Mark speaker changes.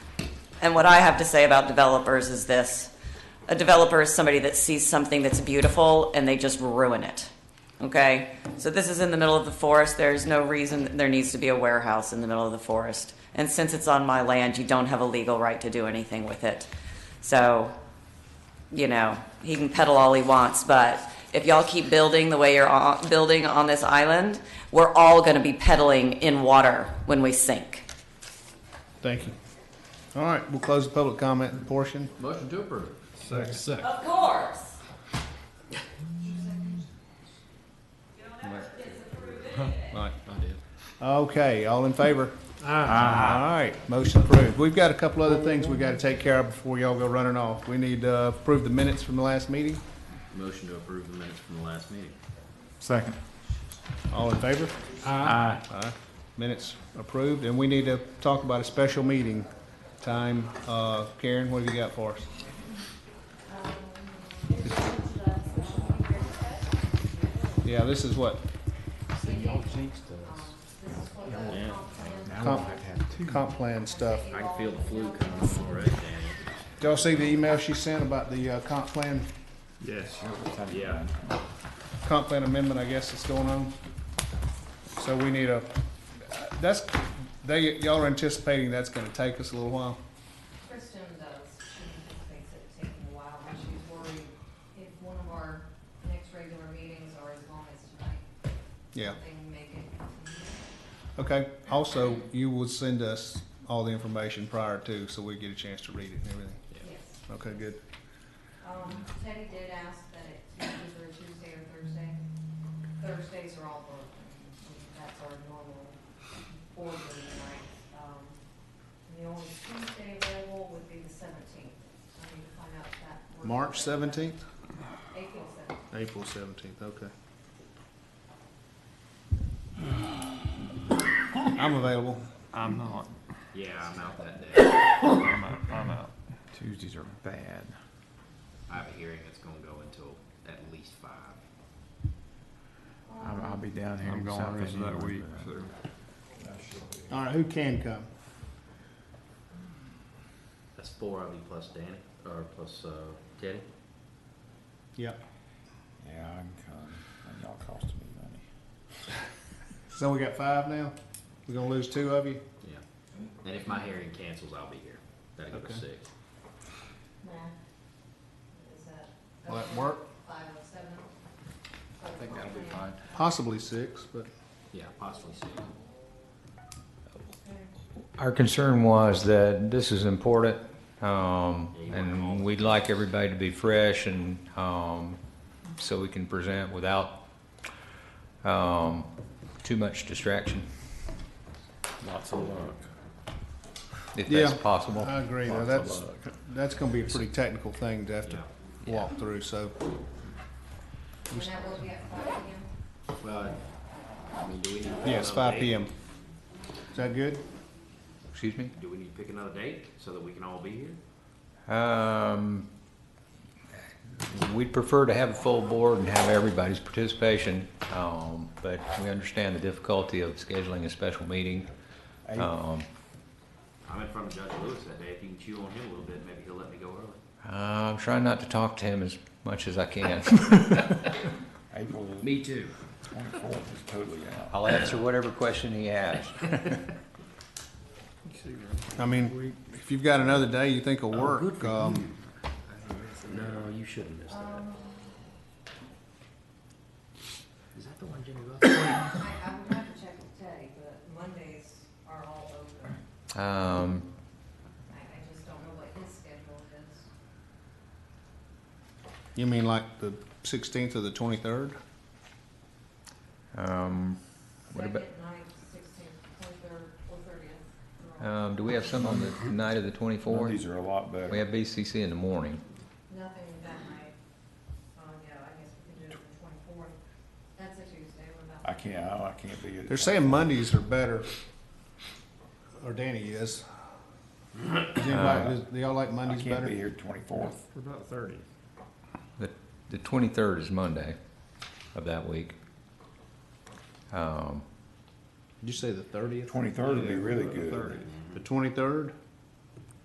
Speaker 1: And what I have to say about developers is this. A developer is somebody that sees something that's beautiful and they just ruin it. Okay? So this is in the middle of the forest. There's no reason that there needs to be a warehouse in the middle of the forest. And since it's on my land, you don't have a legal right to do anything with it. So, you know, he can peddle all he wants, but if y'all keep building the way you're on, building on this island, we're all going to be peddling in water when we sink.
Speaker 2: Thank you. All right, we'll close the public comment portion.
Speaker 3: Motion to approve. Second. Second.
Speaker 1: Of course.
Speaker 3: Mike, I did.
Speaker 2: Okay, all in favor? Aye. All right, motion approved. We've got a couple other things we gotta take care of before y'all go running off. We need to approve the minutes from the last meeting.
Speaker 3: Motion to approve the minutes from the last meeting.
Speaker 4: Second.
Speaker 2: All in favor?
Speaker 4: Aye.
Speaker 2: Minutes approved, and we need to talk about a special meeting time. Uh, Karen, what have you got for us? Yeah, this is what,
Speaker 3: Yeah,
Speaker 4: Now
Speaker 2: comp,
Speaker 4: I have two.
Speaker 2: comp plan stuff.
Speaker 3: I can feel the flu coming on already, Daniel.
Speaker 2: Did y'all see the email she sent about the uh, comp plan,
Speaker 3: Yes. Yeah.
Speaker 2: comp plan amendment, I guess, that's going on? So we need a, that's, they, y'all are anticipating that's gonna take us a little while?
Speaker 5: Kristen does, she just thinks it's taking a while, and she's worried if one of our next regular meetings are as long as tonight,
Speaker 2: Yeah.
Speaker 5: they make it.
Speaker 2: Okay, also, you will send us all the information prior to, so we get a chance to read it and everything.
Speaker 5: Yes.
Speaker 2: Okay, good.
Speaker 5: Um, Teddy did ask that it's either Tuesday or Thursday. Thursdays are all booked. That's our normal board meeting nights. Um, and the only Tuesday available would be the seventeenth. I need to find out if that. works.
Speaker 2: March seventeenth?
Speaker 5: April seventeenth.
Speaker 2: April seventeenth, okay. I'm available.
Speaker 4: I'm not.
Speaker 3: Yeah, I'm out that day.
Speaker 4: I'm out. I'm out. Tuesdays are bad.
Speaker 3: I have a hearing that's gonna go until at least five.
Speaker 4: I'm, I'll be down here.
Speaker 6: I'm
Speaker 4: in
Speaker 6: gone
Speaker 4: South
Speaker 6: rest of that
Speaker 4: anyway,
Speaker 6: week,
Speaker 4: but-
Speaker 6: so.
Speaker 2: All right, who can come?
Speaker 3: That's four of you plus Danny, or plus, uh, Teddy.
Speaker 2: Yeah.
Speaker 6: Yeah, I can come. And y'all cost me money.
Speaker 2: So we got five now? We're gonna lose two of you?
Speaker 3: Yeah. And if my hearing cancels, I'll be here. That'll go to
Speaker 2: Okay.
Speaker 3: six.
Speaker 5: Is that?
Speaker 2: Will that work?
Speaker 5: Five oh seven? I
Speaker 4: think that'll be fine.
Speaker 2: Possibly six, but
Speaker 3: Yeah, possibly six.
Speaker 7: Our concern was that this is important, um,
Speaker 3: Yeah, you want all
Speaker 7: and we'd like everybody to be fresh and, um, so we can present without, um, too much distraction,
Speaker 4: Lots of luck.
Speaker 7: if that's
Speaker 2: Yeah.
Speaker 7: possible.
Speaker 2: I agree, though.
Speaker 4: Lots of
Speaker 2: that's,
Speaker 4: luck.
Speaker 2: that's gonna be a pretty technical thing to have to
Speaker 3: Yeah.
Speaker 2: walk through, so.
Speaker 5: And that will be at five again?
Speaker 3: Well, I mean, do we need? to pick
Speaker 2: Yes,
Speaker 3: another
Speaker 2: five
Speaker 3: date?
Speaker 2: P M. Is that good?
Speaker 7: Excuse me?
Speaker 3: Do we need to pick another date so that we can all be here?
Speaker 7: Um, we'd prefer to have a full board and have everybody's participation, um, but we understand the difficulty of scheduling a special meeting. Um,
Speaker 3: I'm in front of Judge Lewis that day. If you can chew on him a little bit, maybe he'll let me go early.
Speaker 7: I'm trying not to talk to him as much as I can.
Speaker 4: April
Speaker 3: Me too.
Speaker 4: twenty-fourth is totally out.
Speaker 7: I'll answer whatever question he asks.
Speaker 2: I mean, if you've got another day you think
Speaker 4: Oh,
Speaker 2: will work, um,
Speaker 3: No, you shouldn't miss that. Is that the one Jimmy Buffett?
Speaker 5: I, I would have to check with Teddy, but Mondays are all open.
Speaker 7: Um,
Speaker 5: I, I just don't know what his schedule is.
Speaker 2: you mean like the sixteenth or the twenty-third?
Speaker 7: um, What about-
Speaker 5: Second, ninth, sixteenth, twenty-third, or thirtieth.
Speaker 7: um, do we have some on the night of the
Speaker 4: Mondays
Speaker 7: twenty-fourth?
Speaker 4: are a lot better.
Speaker 7: We have BCC in the morning.
Speaker 5: Nothing that night. Um, yeah, I guess we could do it the twenty-fourth. That's a Tuesday, what about?
Speaker 4: I can't, I I can't be. at-
Speaker 2: They're saying Mondays are better, or Danny is. Does anybody, does- do y'all like
Speaker 4: I
Speaker 2: Mondays
Speaker 4: can't
Speaker 2: better?
Speaker 4: be here twenty-fourth.
Speaker 6: What about thirty?
Speaker 7: The, the twenty-third is Monday of that week. Um,
Speaker 2: Did you say the thirtieth?
Speaker 4: Twenty-third would be really good.
Speaker 2: The twenty-third?